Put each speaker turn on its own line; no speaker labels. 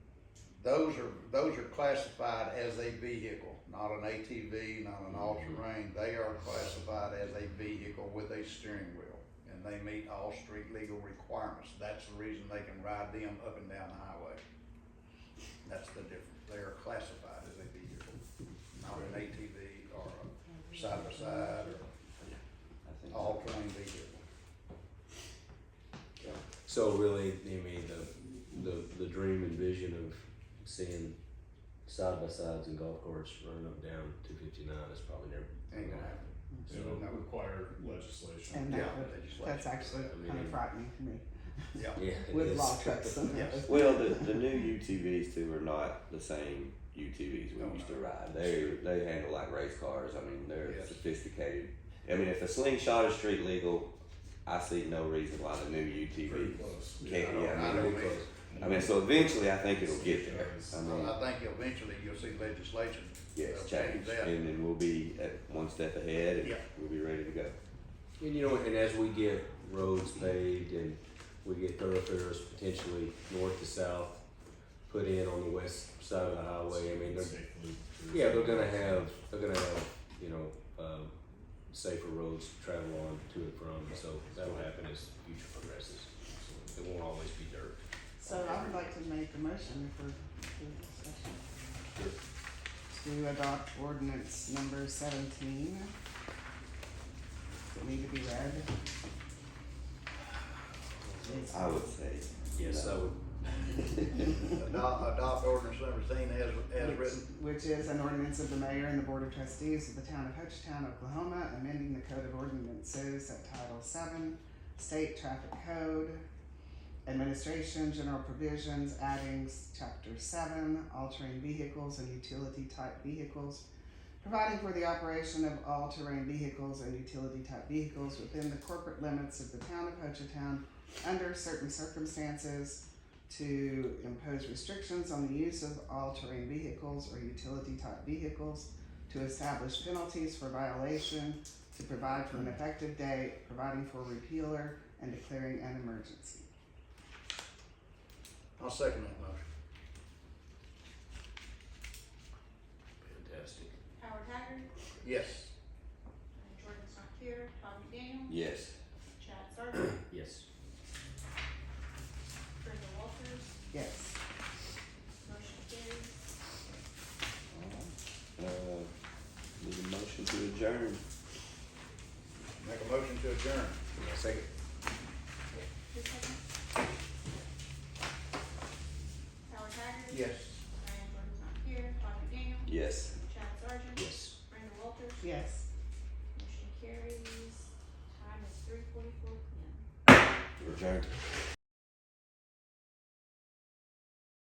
Those are, those are classified as a vehicle, not an ATV, not an
Mm-hmm.
all-terrain. They are classified as a vehicle with a steering wheel. And they meet all street legal requirements. That's the reason they can ride them up and down the highway. That's the difference. They are classified as a vehicle, not an ATV or a side-by-side or
I think
all-terrain vehicle.
So really, I mean, the, the, the dream and vision of seeing side by sides and golf carts running up and down two fifty nine is probably never
Ain't gonna happen.
So,
It would require legislation.
And that
Yeah,
would,
legislation.
that's actually
I mean,
kind of
it-
frightening to me
Yeah.
yeah, it
with
is.
law trucks and
Yes.
those.
Well, the, the new UTVs too are not the same UTVs we
No,
used
no.
to ride. They they handle like race cars. I mean, they're
Yes.
sophisticated. I mean, if a slingshot is street legal, I see no reason why the new
Pretty
UTV
close.
can't.
don't-
Yeah, I
I
mean,
don't
they-
either.
I mean, so eventually, I think it'll get there. I mean,
I think eventually you'll see legislation.
yes,
They'll
change,
that.
and then we'll be at one step ahead, and
Yeah.
we'll be ready to go.
And you know, and as we get roads paved and we get thoroughfares potentially north to south put in on the west side of the highway, I mean, they're,
Safely.
yeah, they're gonna have, they're gonna have, you know, um, safer roads to travel on to and from, so that'll happen as future progresses. It won't always be dirt.
So I would like to make a motion for for discussion. To adopt ordinance number seventeen. Does it need to be read? It's-
I would say.
Yes, I would,
Adopt, adopt ordinance number seventeen as, as
which-
written.
Which is an ordinance of the mayor and the board of trustees of the town of Hochtown, Oklahoma, amending the code of ordinances at Title Seven, State Traffic Code, Administration, General Provisions, adding s- Chapter Seven, altering vehicles and utility-type vehicles, providing for the operation of all-terrain vehicles and utility-type vehicles within the corporate limits of the town of Hochtown under certain circumstances, to impose restrictions on the use of all-terrain vehicles or utility-type vehicles, to establish penalties for violation, to provide for an effective date, providing for repealer, and declaring an emergency.
I'll second that motion.
fantastic.
Howard Haggard,
Yes.
Jordan's not here, Todd McDaniel,
Yes.
Chad Sargent,
Yes.
Brenda Walters,
Yes.
motion carries.
Uh, need a motion to adjourn.
Make a motion to adjourn.
Second.
Who's second? Howard Haggard. Diane Jordan's not here, Todd McDaniel,
Yes.
Chad Sargent,
Yes.
Brenda Walters,
Yes.
motion carries. Time is three forty-four P M.
Return.